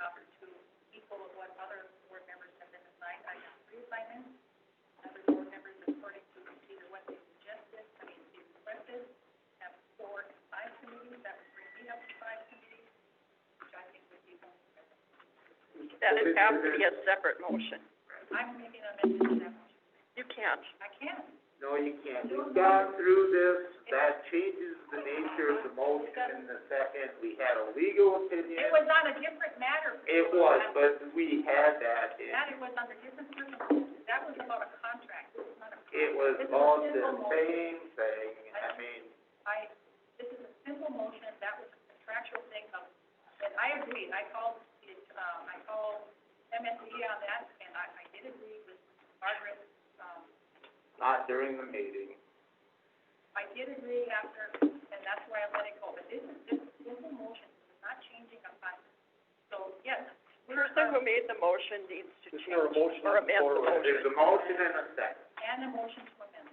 offered to equal of what other board members have been assigned. I have three assignments. Other board members, according to either what they suggested, I mean, they requested, have four and five committees. That would bring me up to five committees, which I think would be one. That would have to be a separate motion. I'm making a mention of that. You can't. I can. No, you can't. We've gone through this, that changes the nature of the motion in the second, we had a legal opinion. It was on a different matter. It was, but we had that, it, That it was under different circumstances. That was about a contract. This is not a. it was This is a on the simple motion. same thing, I mean, I, this is a simple motion, that was a contractual thing of, and I agreed, I called, it, um, I called MSD on that, and I, I did agree with Margaret, um, not during the meeting. I did agree after, and that's why I let it go, but this is just a simple motion, it's not changing a fact. So, yes, The person who made the motion needs to change or amend the There's motion. a motion and a second. and a motion to amend.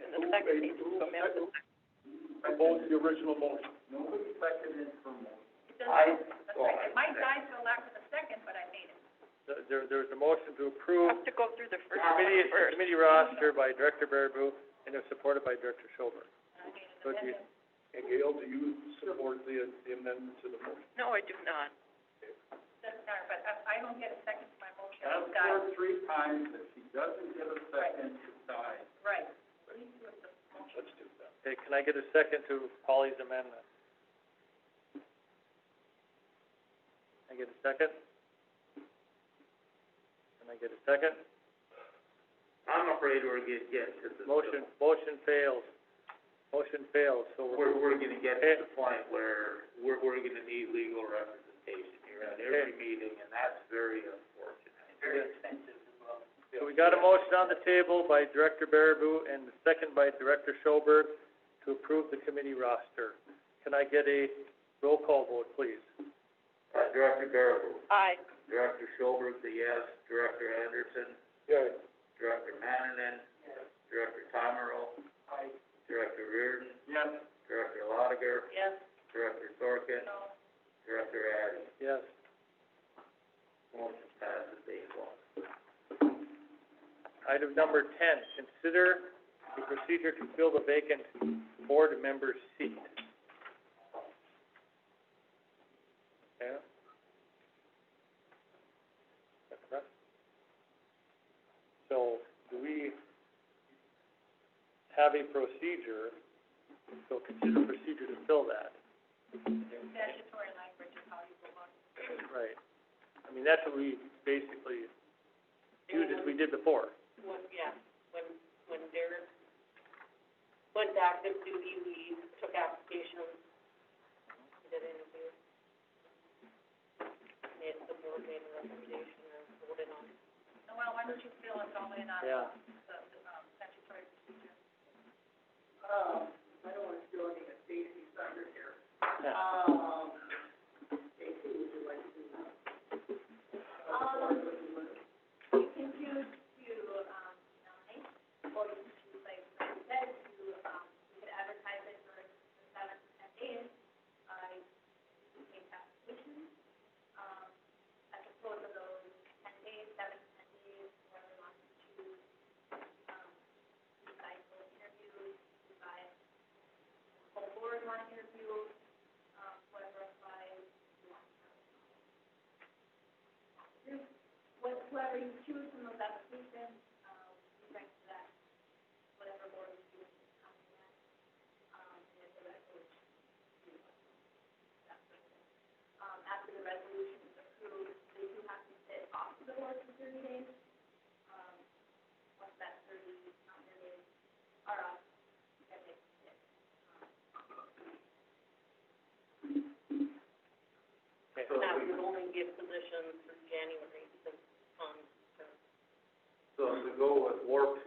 And the second needs to amend the Both the original motion. Nobody seconded for motion. It doesn't, I, that's right, it might die for lack of a second, but I made it. There, there's a motion to You approve have to go through the the first committee, one the first. committee roster by Director Baraboo, and it's supported by Director Schober. I made an So do you- amendment. And Gail, do you support the, the amendment to the motion? No, I do not. Doesn't matter, but I, I don't get a second to my motion, That's it dies. three times, if she doesn't get a second, it dies. Right. Please do it the motion. Let's do that. Okay, can I get a second to Polly's amendment? Can I get a second? Can I get a second? I'm afraid we're gonna get to the. Motion, motion fails. Motion fails, so we're, We're, we're gonna get to the point where we're, we're gonna need legal representation here at every meeting, and that's very unfortunate. Very expensive as well. so we got a motion on the table by Director Baraboo and a second by Director Schoberg to approve the committee roster. Can I get a roll call vote, please? Uh, Director Baraboo, Aye. Director Schober's a yes, Director Anderson, Yes. Director Mannanen. Director Tomerl. Director Reardon, Yes. Director Lotiger, Yes. Director Sorkin, No. Director Addy. Yes. Motion passes eight one. Item number ten, consider the procedure to fill the vacant board member seat. Yeah? That's correct. So, do we have a procedure, so consider procedure to fill that? Statutory language is how you go about it. Right. I mean, that's what we basically used as we did before. When, yeah, when, when Derek went back to duty, we took applications, did interviews. Made, the board made a recommendation and voted on it. Noel, why don't you fill us all in on the, Yeah. the, um, statutory procedure? That would only give positions through January, since, um, So to go with warp